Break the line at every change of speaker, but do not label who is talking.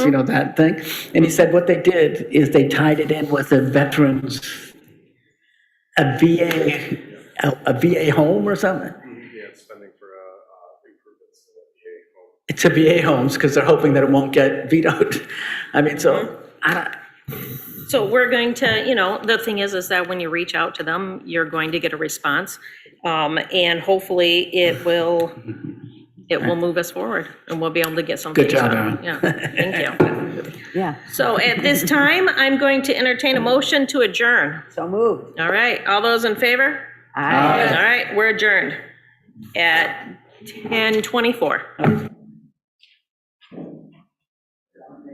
you know, that thing. And he said what they did is they tied it in with a veterans, a VA, a a VA home or something.
Yeah, it's spending for uh, uh, improvements to the VA home.
to VA homes because they're hoping that it won't get vetoed. I mean, so, I don't,
So we're going to, you know, the thing is, is that when you reach out to them, you're going to get a response. Um, and hopefully it will, it will move us forward and we'll be able to get something.
Good job,
done.
Erin.
Yeah, thank you.
Yeah,
So at this time, I'm going to entertain a motion to adjourn.
so moved.
All right, all those in favor?
Aye.
All right, we're adjourned at 10:24.